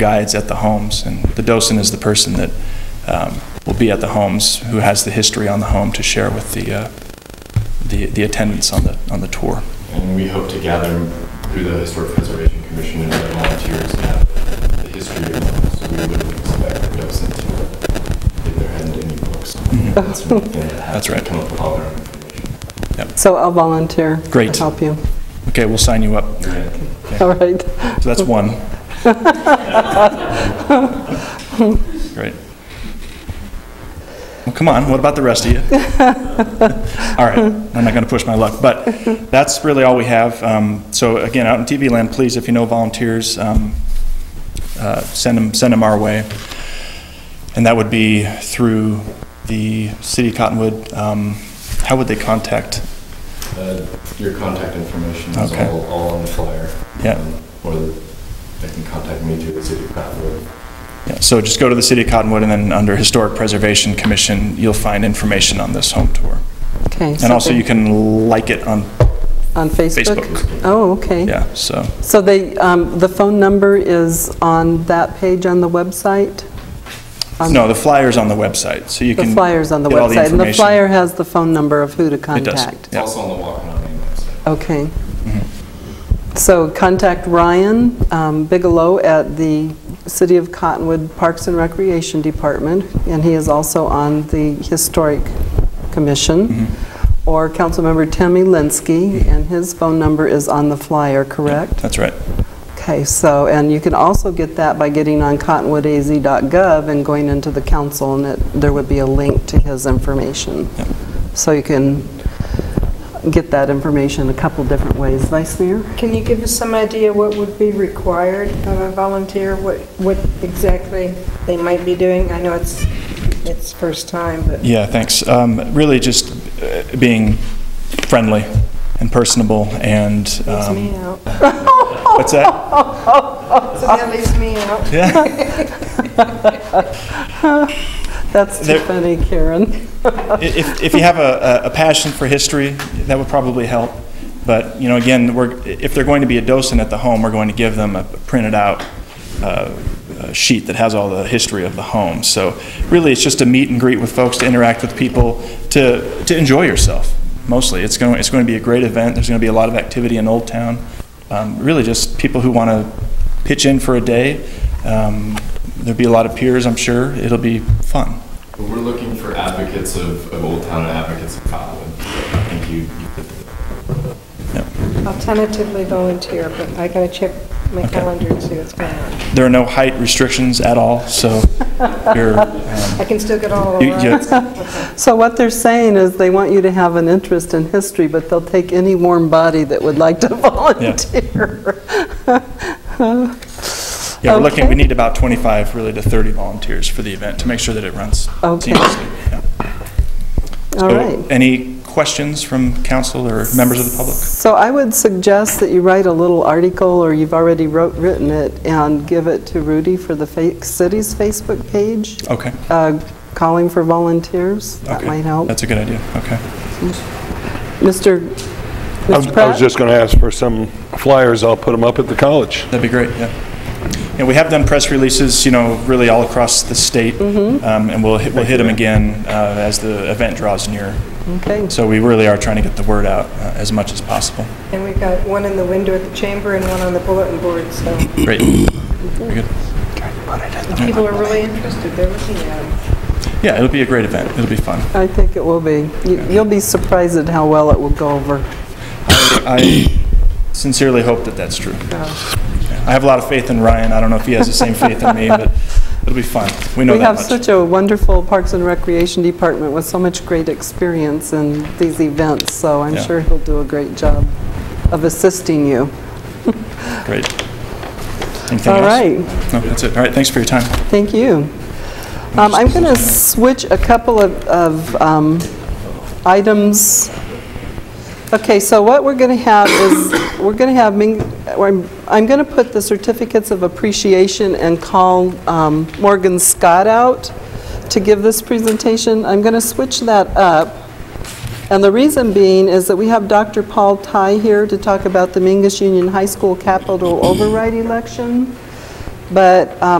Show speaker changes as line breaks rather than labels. guides at the homes, and the docent is the person that um, will be at the homes, who has the history on the home to share with the, uh, the the attendants on the, on the tour.
And we hope to gather through the Historic Preservation Commission and other volunteers to have the history of them. So we wouldn't expect our docent to, if there hadn't any books. That's one thing that has
Mm-hmm. That's
to
right.
Come up with all their own information.
So I'll volunteer.
Great.
To help you.
Okay, we'll sign you up.
All right.
So that's one. Great. Well, come on, what about the rest of you? All right, I'm not going to push my luck, but that's really all we have. Um, So again, out in TV land, please, if you know volunteers, um, uh, send them, send them our way. And that would be through the city of Cottonwood. Um, How would they contact?
Uh, Your contact information is
Okay.
all, all on the flyer.
Yeah.
Um, Or they can contact me through the city of Cottonwood.
Yeah, So just go to the City of Cottonwood, and then under Historic Preservation Commission, you'll find information on this home tour.
Okay.
And also, you can like it on,
On Facebook?
Facebook.
Oh, okay.
yeah, so,
So they, um, the phone number is on that page on the website? On-
no, the flyer's on the website, so you
The
can.
flyer's on the
get all
website, and the
information.
flyer has the phone number of who to
It does,
contact.
It's
yeah.
also on the Walk and On Main website.
Okay. So contact Ryan um, Bigelow at the City of Cottonwood Parks and Recreation Department, and he is also on the Historic Commission, or Councilmember Tammy Linsky, and his phone number is on the flyer, correct?
That's right.
Okay, so, and you can also get that by getting on cottonwoodaz.gov and going into the council, and it- there would be a link to his information. So you can get that information a couple different ways. Vice Mayor?
Can you give us some idea what would be required of a volunteer, what, what exactly they might be doing? I know it's, it's first time, but
Yeah, thanks. Um, Really just uh, being friendly and personal and.
leaves
um,
me out.
What's that?
So that leaves me out.
Yeah,
That's too
There-
funny, Karen.
I- if, if you have a, a a passion for history, that would probably help. But, you know, again, we're, if they're going to be a docent at the home, we're going to give them a printed out uh, uh, sheet that has all the history of the home. So really, it's just to meet and greet with folks, to interact with people, to, to enjoy yourself, mostly. It's going, it's going to be a great event. There's going to be a lot of activity in Old Town. Um, Really just people who want to pitch in for a day. Um, There'll be a lot of peers, I'm sure. It'll be fun.
But We're looking for advocates of, of Old Town and advocates of Cottonwood. I think you, you fit the
I'll tentatively volunteer, but I gotta check my
Okay.
calendar and see what's going on.
There are no height restrictions at all, so you're, um,
I can still get all
you- you-
around.
So what they're saying is they want you to have an interest in history, but they'll take any warm body that would like to volunteer.
yeah, we're looking, we
Okay.
need about 25, really to 30 volunteers for the event to make sure that it runs
Okay.
seamlessly. yeah.
All
So,
right.
Any questions from council or members of the public?
So I would suggest that you write a little article, or you've already wrote, written it, and give it to Rudy for the fa- city's Facebook page,
Okay.
uh, calling for volunteers. That
okay.
might help.
That's a good idea, okay.
Mr.
I was-
Mr.
I was
Pratt?
just going to ask for some flyers. I'll put them up at the college.
That'd be great, yeah. And we have done press releases, you know, really all across the state,
Mm-hmm.
um, and we'll, hit- we'll hit them again uh, as the event draws near.
Okay.
So we really are trying to get the word out uh, as much as possible.
And we've got one in the window at the chamber and one on the bulletin board, so
Great. Very good.
people are really interested, they're looking at it.
Yeah, it'll be a great event. It'll be fun.
I think it will be. You- You'll be surprised at how well it will go over.
I sincerely hope that that's true. I have a lot of faith in Ryan. I don't know if he has the same faith in me, but it'll be fun. We know
We
that
have
much.
such a wonderful Parks and Recreation Department with so much great experience in these events, so I'm
Yeah.
sure he'll do a great job of assisting you.
Great. Anything
All
else?
right.
No, that's it. All right, thanks for your time.
Thank you. Um, I'm going to switch a couple of- of um, items. Okay, so what we're going to have is, we're going to have, Ming- or I'm- I'm going to put the certificates of appreciation and call um, Morgan Scott out to give this presentation. I'm going to switch that up. And the reason being is that we have Dr. Paul Ty here to talk about the Mingus Union High School capital override election. But um,